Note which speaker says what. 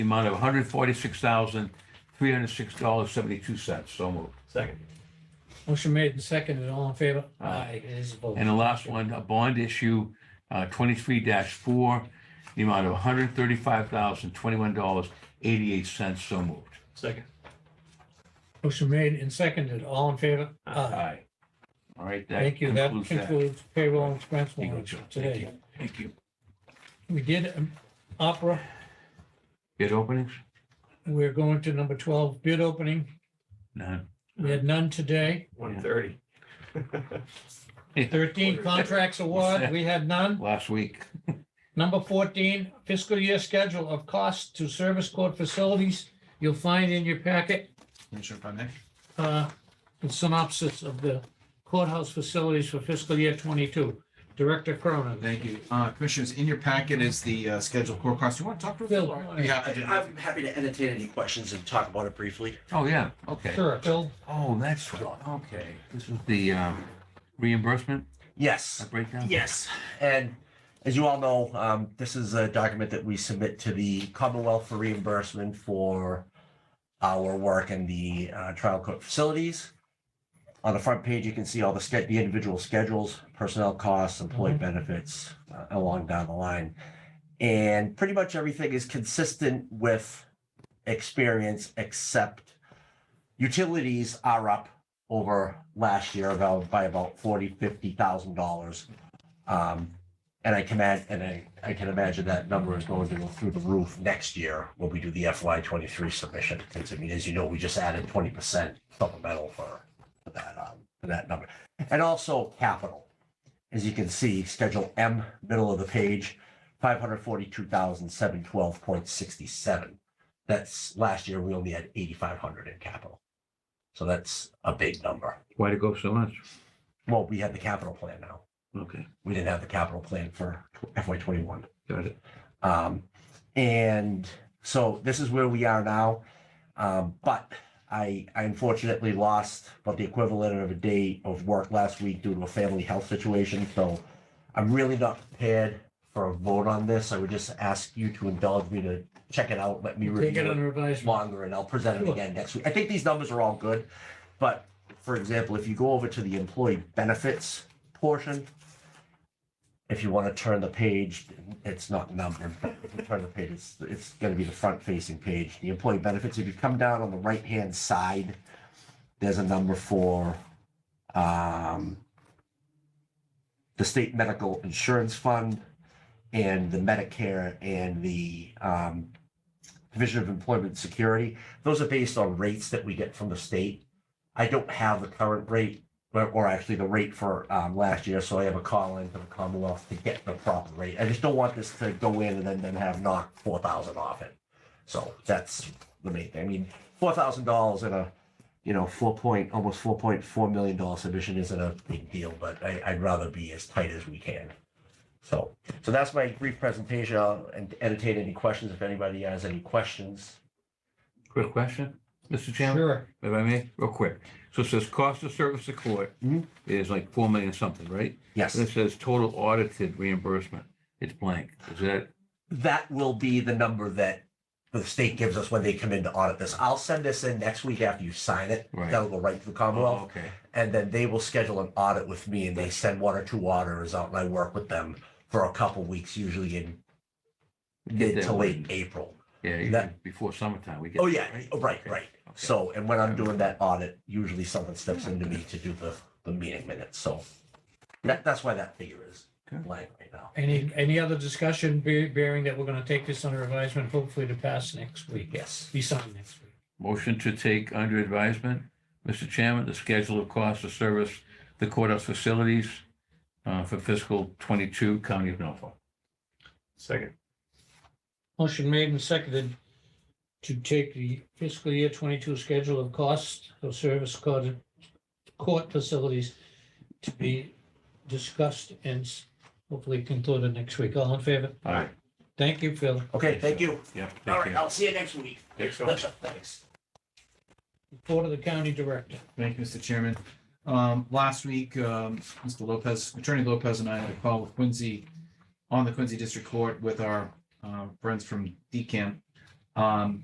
Speaker 1: the amount of $146,306.72. So moved.
Speaker 2: Second.
Speaker 3: Motion made and seconded, all in favor?
Speaker 1: Aye.
Speaker 3: It is a vote.
Speaker 1: And the last one, a bond issue, uh, twenty-three four, the amount of hundred thirty-five thousand, twenty-one dollars, eighty-eight cents, so moved.
Speaker 2: Second.
Speaker 3: Motion made and seconded, all in favor? Aye.
Speaker 1: Aye. All right, that
Speaker 3: Thank you. That
Speaker 1: concludes that.
Speaker 3: concludes payroll and expense
Speaker 1: You go,
Speaker 3: warrants
Speaker 1: Joe.
Speaker 3: for
Speaker 1: Thank
Speaker 3: today.
Speaker 1: you. Thank you.
Speaker 3: We did um, opera.
Speaker 1: Bid openings?
Speaker 3: We're going to number 12 bid opening.
Speaker 1: None.
Speaker 3: We had none today.
Speaker 2: One thirty.
Speaker 3: 13 contracts award, we had none.
Speaker 1: Last week.
Speaker 3: Number 14 fiscal year schedule of costs to service court facilities. You'll find in your packet
Speaker 4: Commissioner, if I may.
Speaker 3: uh, a synopsis of the courthouse facilities for fiscal year 22. Director Cronin.
Speaker 4: Thank you. Uh, Commissioners, in your packet is the uh, scheduled core cost. You want to talk to?
Speaker 3: Bill.
Speaker 4: Yeah, I did.
Speaker 5: I'm happy to entertain any questions and talk about it briefly.
Speaker 1: Oh, yeah, okay.
Speaker 3: Sure, Bill.
Speaker 1: Oh, that's, what- okay. This is the, um, reimbursement
Speaker 5: Yes,
Speaker 1: breakdown?
Speaker 5: yes. And as you all know, um, this is a document that we submit to the Commonwealth for reimbursement for our work in the uh, trial court facilities. On the front page, you can see all the sched- the individual schedules, personnel costs, employee benefits, uh, along down the line. And pretty much everything is consistent with experience, except utilities are up over last year about by about forty, fifty thousand dollars. Um, and I can add, and I, I can imagine that number is going to go through the roof next year when we do the FY twenty-three submission. Because I mean, as you know, we just added twenty percent supplemental for for that, um, for that number. And also capital. As you can see, Schedule M, middle of the page, five hundred forty-two thousand, seven twelve point sixty-seven. That's last year, we only had eighty-five hundred in capital. So that's a big number.
Speaker 1: Why to go so much?
Speaker 5: Well, we have the capital plan now.
Speaker 1: Okay,
Speaker 5: We didn't have the capital plan for FY twenty-one.
Speaker 1: got it.
Speaker 5: Um, and so this is where we are now. Um, but I, I unfortunately lost about the equivalent of a day of work last week due to a family health situation. So I'm really not prepared for a vote on this. I would just ask you to indulge me to check it out, let me
Speaker 3: Take
Speaker 5: review
Speaker 3: it
Speaker 5: it
Speaker 3: under advisement.
Speaker 5: longer and I'll present it
Speaker 3: Sure.
Speaker 5: again next week. I think these numbers are all good, but for example, if you go over to the employee benefits portion, if you want to turn the page, it's not numbered, but if you turn the page, it's, it's going to be the front facing page. The employee benefits, if you come down on the right hand side, there's a number for um, the state medical insurance fund and the Medicare and the um, Division of Employment Security. Those are based on rates that we get from the state. I don't have the current rate, or, or actually the rate for um, last year, so I have a call in to the Commonwealth to get the proper rate. I just don't want this to go in and then, then have knocked four thousand off it. So that's the main thing. I mean, four thousand dollars in a, you know, four point, almost four point four million dollar submission isn't a big deal, but I, I'd rather be as tight as we can. So. So that's my brief presentation. I'll en- entertain any questions if anybody has any questions.
Speaker 1: Quick question, Mr. Chairman?
Speaker 3: Sure.
Speaker 1: if I may, real quick. So it says cost of service to court
Speaker 5: Mhm.
Speaker 1: is like four million something, right?
Speaker 5: Yes,
Speaker 1: And it says total audited reimbursement. It's blank. Is that,
Speaker 5: that will be the number that the state gives us when they come in to audit this. I'll send this in next week after you sign it.
Speaker 1: Right.
Speaker 5: That'll go right to the
Speaker 1: oh,
Speaker 5: Commonwealth.
Speaker 1: okay,
Speaker 5: And then they will schedule an audit with me and they send one or two auditors out and I work with them for a couple weeks, usually in mid
Speaker 1: that
Speaker 5: to late
Speaker 1: one.
Speaker 5: April.
Speaker 1: yeah, you-
Speaker 5: That-
Speaker 1: before summertime, we get.
Speaker 5: Oh,
Speaker 1: that,
Speaker 5: yeah, oh, right,
Speaker 1: Okay,
Speaker 5: right.
Speaker 1: okay.
Speaker 5: So, and when I'm doing that audit, usually someone steps into me to do the, the meeting minutes. So that, that's why that figure is
Speaker 1: Okay.
Speaker 5: blank right now.
Speaker 3: Any, any other discussion be- bearing that we're going to take this under advisement, hopefully to pass next week,
Speaker 5: Yes.
Speaker 3: be signed next week?
Speaker 1: Motion to take under advisement, Mr. Chairman, the schedule of cost of service, the courthouse facilities uh, for fiscal twenty-two, County of Norfolk.
Speaker 2: Second.
Speaker 3: Motion made and seconded to take the fiscal year twenty-two schedule of costs of service court, court facilities to be discussed and s- hopefully concluded next week. All in favor?
Speaker 1: All right,
Speaker 3: Thank you, Phil.
Speaker 5: Okay, thank you.
Speaker 1: yeah,
Speaker 5: All
Speaker 1: thank
Speaker 5: right,
Speaker 1: you.
Speaker 5: I'll see you next week.
Speaker 2: Thanks, Phil.
Speaker 5: Thanks.
Speaker 3: Report of the county director.
Speaker 4: Thank you, Mr. Chairman. Um, last week, um, Mr. Lopez, Attorney Lopez and I had a call with Quincy on the Quincy District Court with our, uh, friends from DCAM. Um,